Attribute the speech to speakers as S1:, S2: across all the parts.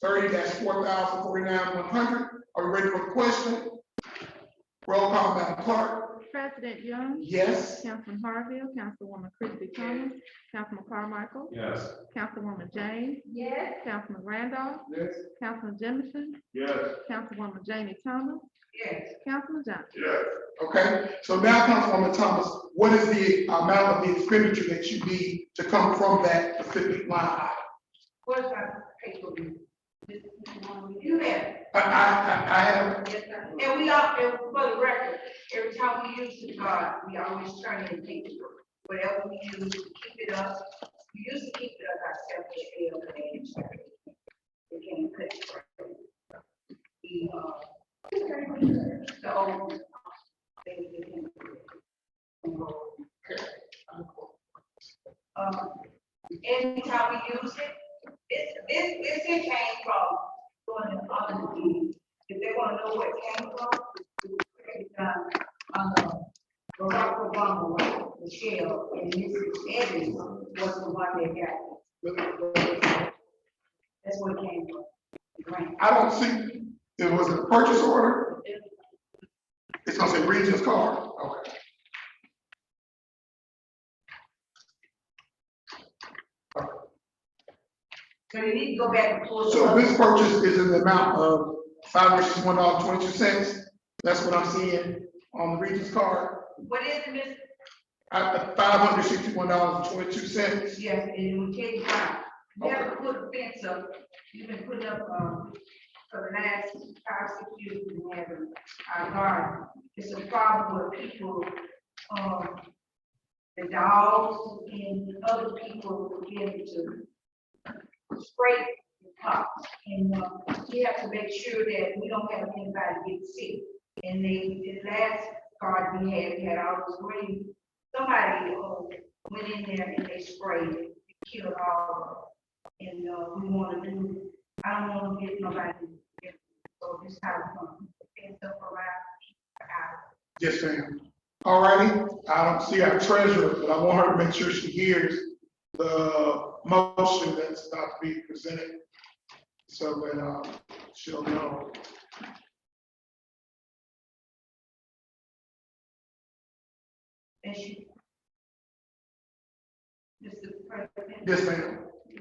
S1: three, that's four thousand forty-nine one hundred. Are we ready for the question? Roll call, Madam Clerk.
S2: President Young,
S1: Yes.
S2: Councilman Harville, Councilwoman Christie Thomas, Councilman Carmichael,
S3: Yes.
S2: Councilwoman Jane,
S4: Yes.
S2: Councilman Randolph,
S3: Yes.
S2: Councilman Jemison,
S3: Yes.
S2: Councilwoman Jamie Thomas,
S4: Yes.
S2: Councilman Johnson.
S3: Yes.
S1: Okay, so now, Councilwoman Thomas, what is the amount of the expenditure that you need to come from that specific line? item?
S4: What is our paper? You have,
S1: I, I, I I have,
S4: yes, sir. And we all, and for the record, every time we use the card, we always turn in paper. Whatever we use, we keep it up. We used to keep it up ourselves, but we don't pay it. We can't put it. right. We, uh, so. they- they can- Um, Anytime we use it, this, this, this here came from going to other meetings. If they want to know where it came from, it's from, um, Barack Obama, Michelle, and Mrs. Evans was the one that got it. That's where it came from. the grant.
S1: I don't see, it was a purchase order? It's gonna say Regis Card, okay.
S4: So you need to go back and pull. it
S1: So
S4: up.
S1: this purchase is in the amount of five hundred sixty-one dollars twenty-two cents. That's what I'm seeing on the Regis Card,
S4: What is it, Miss?
S1: at five hundred sixty-one dollars twenty-two cents.
S4: Yes, and we tell you why. You have to
S1: Okay.
S4: put a fence up, you've been putting up, um, for the last five, six years, we have our garden. It's a problem with people, um, the dogs and other people begin to spray the pots. And, uh, we have to make sure that we don't have anybody get sick. And they, the last garden we had, we had all this green, somebody, uh, went in there and they sprayed it, killed all of them. And, uh, we wanna do, I don't wanna get nobody, so this time, um, it's up around.
S1: Yes, ma'am. All righty, I don't see our treasurer, but I want her to make sure she hears the motion that's about to be presented. So that, uh, she'll know.
S4: And she. Mr. President.
S1: Yes, ma'am.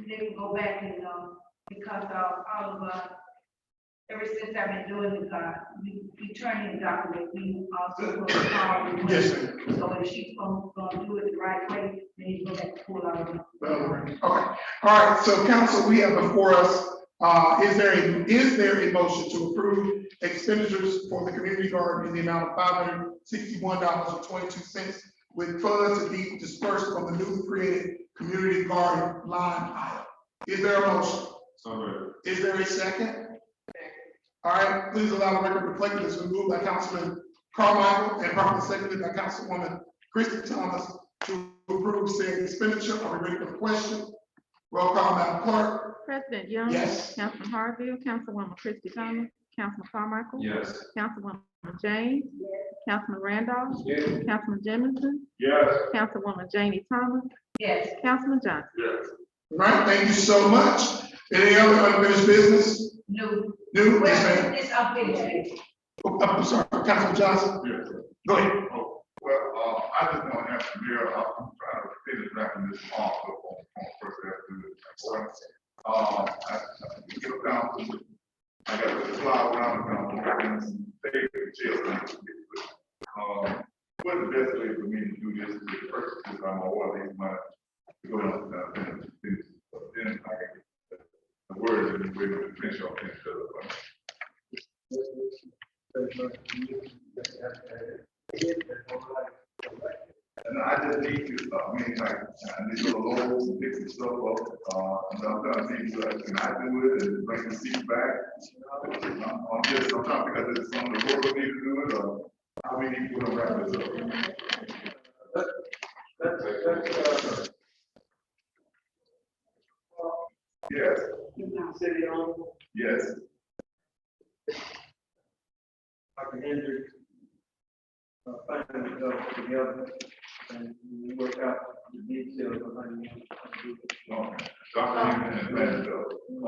S4: They can go back and, um, because of all of us, ever since I've been doing this, uh, we, we turn in document, we also. go to call the-
S1: Yes, ma'am.
S4: So if she's gonna, gonna do it the right way, then you go back to pull out. the-
S1: Okay, all right, so council, we have before us, uh, is there a is there a motion to approve expenditures for the community garden in the amount of five hundred sixty-one dollars and twenty-two cents with funds to be dispersed from the newly created community garden line item? Is there a motion?
S3: So moved.
S1: Is there a second? All right, please allow the record to reflect this. We moved by Councilman Carmichael and properly seconded by Councilwoman Christie Thomas to approve said expenditure. Are we ready for the question? Roll call, Madam Clerk.
S2: President Young.
S1: Yes.
S2: Councilman Harville, Councilwoman Christie Thomas, Councilman Carmichael.
S3: Yes.
S2: Councilwoman Jane,
S4: Yes.
S2: Councilman Randolph,
S3: Yes.
S2: Councilman Jemison,
S3: Yes.
S2: Councilwoman Jamie Thomas,
S4: Yes.
S2: Councilman Johnson.
S3: Yes.
S1: All right, thank you so much. Any other unfinished business?
S4: No.
S1: New, yes, ma'am.
S4: Well, it's unfinished.
S1: Oh, I'm sorry, Councilman Johnson,
S3: Yes.
S1: go ahead.
S3: Oh, Well, uh, I just want to ask the mayor, uh, I'm trying to finish wrapping this off up on, on First Avenue. Uh, I, I get down to, I got the fly around and down, and stay with children. Um, what the best way for me to do this is first, because I'm always my, go down, uh, finish, finish, but then I can, get the words, and we're going to finish off, finish up. And I just need to, uh, I mean, like, I need to go along, fix this stuff up, uh, and sometimes things, uh, can I do it and bring the seat back? I'm, I'm just, I'm trying to figure out some of the work we need to do it, or how we need to put around this up.
S5: That's, that's, uh,
S3: Yes,
S5: city owned,
S3: yes,
S5: Dr. Hendrick. Uh, finally got it together and we work out the details of how you want to do it.
S3: okay. Dr. Newman and Brandon,